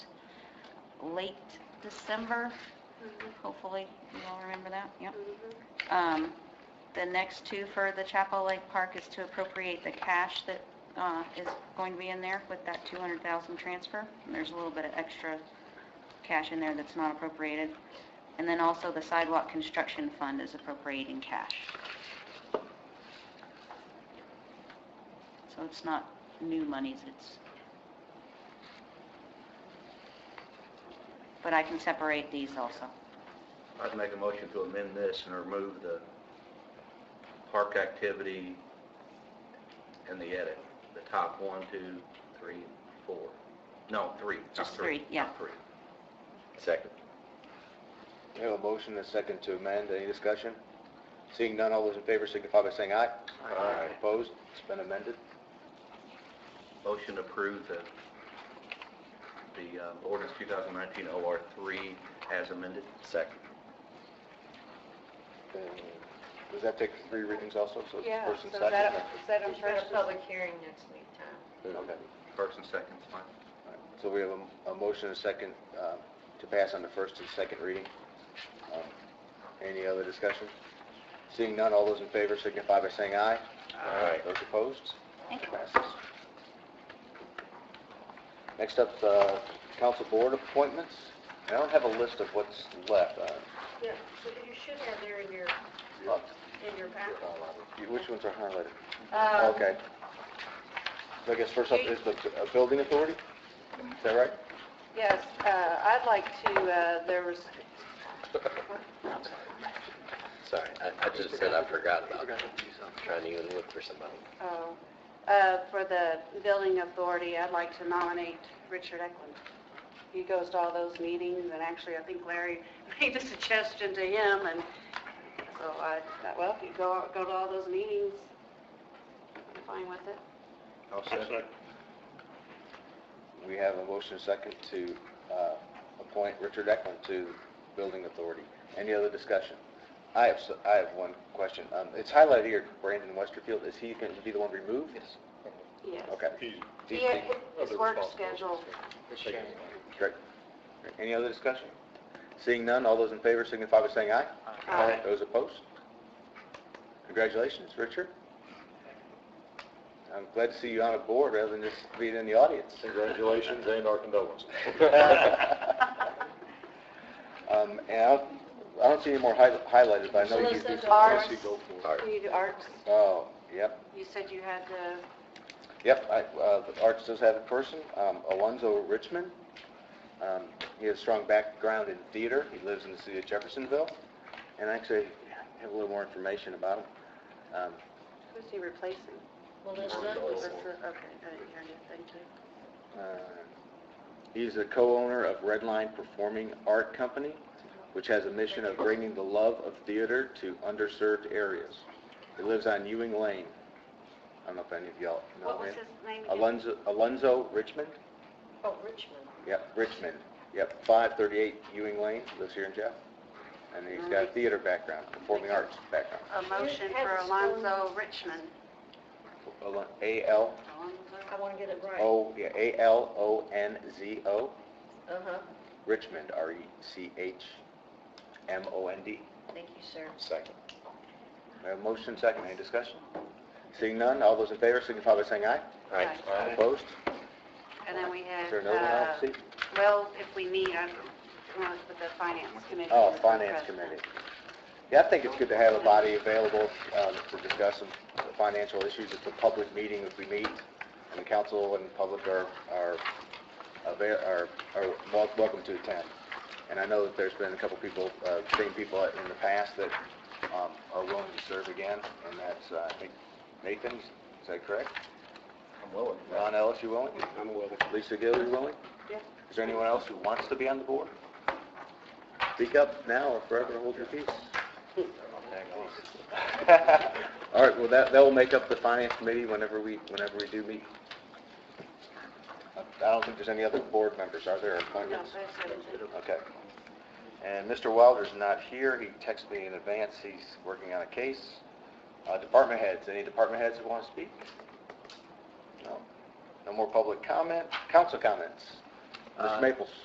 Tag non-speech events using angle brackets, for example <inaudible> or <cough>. late December, Mm-hmm. hopefully you all remember that, yep. Um, The next two for the Chapel Lake Park is to appropriate the cash that uh, is going to be in there with that 200,000 transfer. And there's a little bit of extra cash in there that's not appropriated. And then also the sidewalk construction fund is appropriating cash. So it's not new monies, it's... But I can separate these also. I'd make a motion to amend this and remove the park activity and the edit, the top one, two, three, four. No, three. not Just three, yeah. not three. Second. We have a motion and a second to amend. Any discussion? Seeing none, all those in favor signify by saying aye. Aye. Opposed? It's been amended. Motion to approve the, the um, ordinance 2019 OR 3 as amended. Second. Uh, Does that take three readings also? So it's Yeah, first and so second? that, that on There's been first? a public hearing next week, Tom. Okay. All right. First and second, is fine. So we have a- a motion and a second uh, to pass on the first and second reading. Um, Any other discussion? Seeing none, all those in favor signify by saying aye. Aye. Those opposed? Thank you. Passes. Next up, uh, council board appointments. I don't have a list of what's left. uh, Yeah, so you should have there in your, uh, in your packet. Which ones are highlighted? Um, Okay. So I guess first up is the uh, building authority? Is that right? Yes, uh, I'd like to, uh, there was, Sorry, I, I just said I forgot about trying to even look for somebody. oh, uh, for the building authority, I'd like to nominate Richard Eklund. He goes to all those meetings, and actually, I think Larry <laughs> made the suggestion to him, and so I, thought, well, if you go, go to all those meetings, I'm fine with it. I'll second. We have a motion second to uh, appoint Richard Eklund to Building Authority. Any other discussion? I have, s- I have one question. Um, It's highlighted here, Brandon Westerfield, is he going to be the one removed? Yes. Yes. Okay. He- He's the- His work schedule Great. Great. Any other discussion? Seeing none, all those in favor signify by saying aye. Aye. Those opposed? Congratulations, Richard. I'm glad to see you on a board rather than just being in the audience. Congratulations and our <laughs> condolences. Um, and I don't, I don't see any more hi- highlighted, but I know you do. Melissa some- Arts. Arts. You do arts, Oh, yep, you said you had the yep, I, uh, the Arts does have a person, um, Alonzo Richmond. Um, he has a strong background in theater, he lives in the city of Jeffersonville, and I actually have a little more information about him. Um, Who's he replacing? That's Melissa, the- Okay, I didn't hear anything, thank you. uh, He's a co-owner of Redline Performing Art Company, which has a mission of bringing the love of theater to underserved areas. He lives on Ewing Lane. I don't know if any of y'all What know was him. his name again? Alonzo, Alonzo Richmond? oh, Richmond. Yep, Richmond. Yep, 538 Ewing Lane, lives here in Jeff. And he's got a theater background, performing arts background. A motion Had for the stone- Alonzo Richmond. Alon- A-L, I want to get it Oh. right. O, yeah, A-L-O-N-Z-O, Uh-huh, Richmond, E R-E-C-H-M-O-N-D. thank you, sir. Second. We have a motion, second, any discussion? Seeing none, all those in favor signify by saying aye. Aye. Opposed? And then we Is had, there another one, uh, Steve? well, if we meet, I want to put the finance committee. Oh, as the Finance president. Committee. Yeah, I think it's good to have a body available um, to discuss some financial issues. It's a public meeting if we meet, and the council and the public are, are, ava- are are wel- welcome to attend. And I know that there's been a couple people, uh, same people in the past that um, are willing to serve again, and that's, uh, I think, Nathan, is that correct? I'm willing. Ron Ellis, you willing? I'm willing. Lisa Gill, you willing? Yeah. Is there anyone else who wants to be on the board? Speak up now or forever hold your <laughs> peace. All right, well, that, that will make up the finance committee whenever we, whenever we do meet. I don't think there's any other board members, are there, or No, appointments? that's everything. Okay. And Mr. Wilder's not here, he texted me in advance, he's working on a case. Uh, Department heads, any department heads who want to speak? No? No more public comment, council comments? Uh, Mr. Maples?